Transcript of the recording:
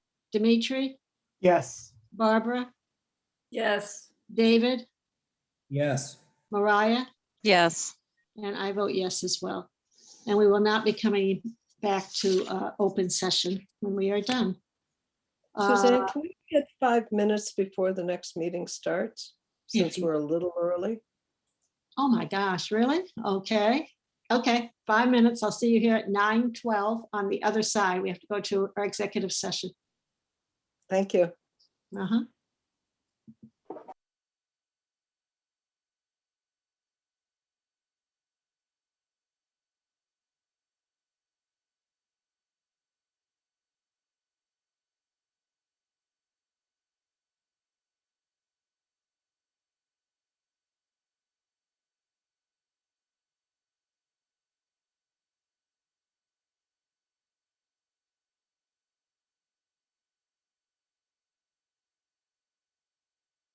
Dimitri, Yes. Barbara, Yes. David, Yes. Mariah, Yes. and I vote yes as well. And we will not be coming back to uh, open session when we are done. Suzanne, Uh, can we get five minutes before the next meeting starts? Yeah. Since we're a little early. Oh, my gosh, really? Okay, okay, five minutes. I'll see you here at 9:12 on the other side. We have to go to our executive session. Thank you. Uh-huh.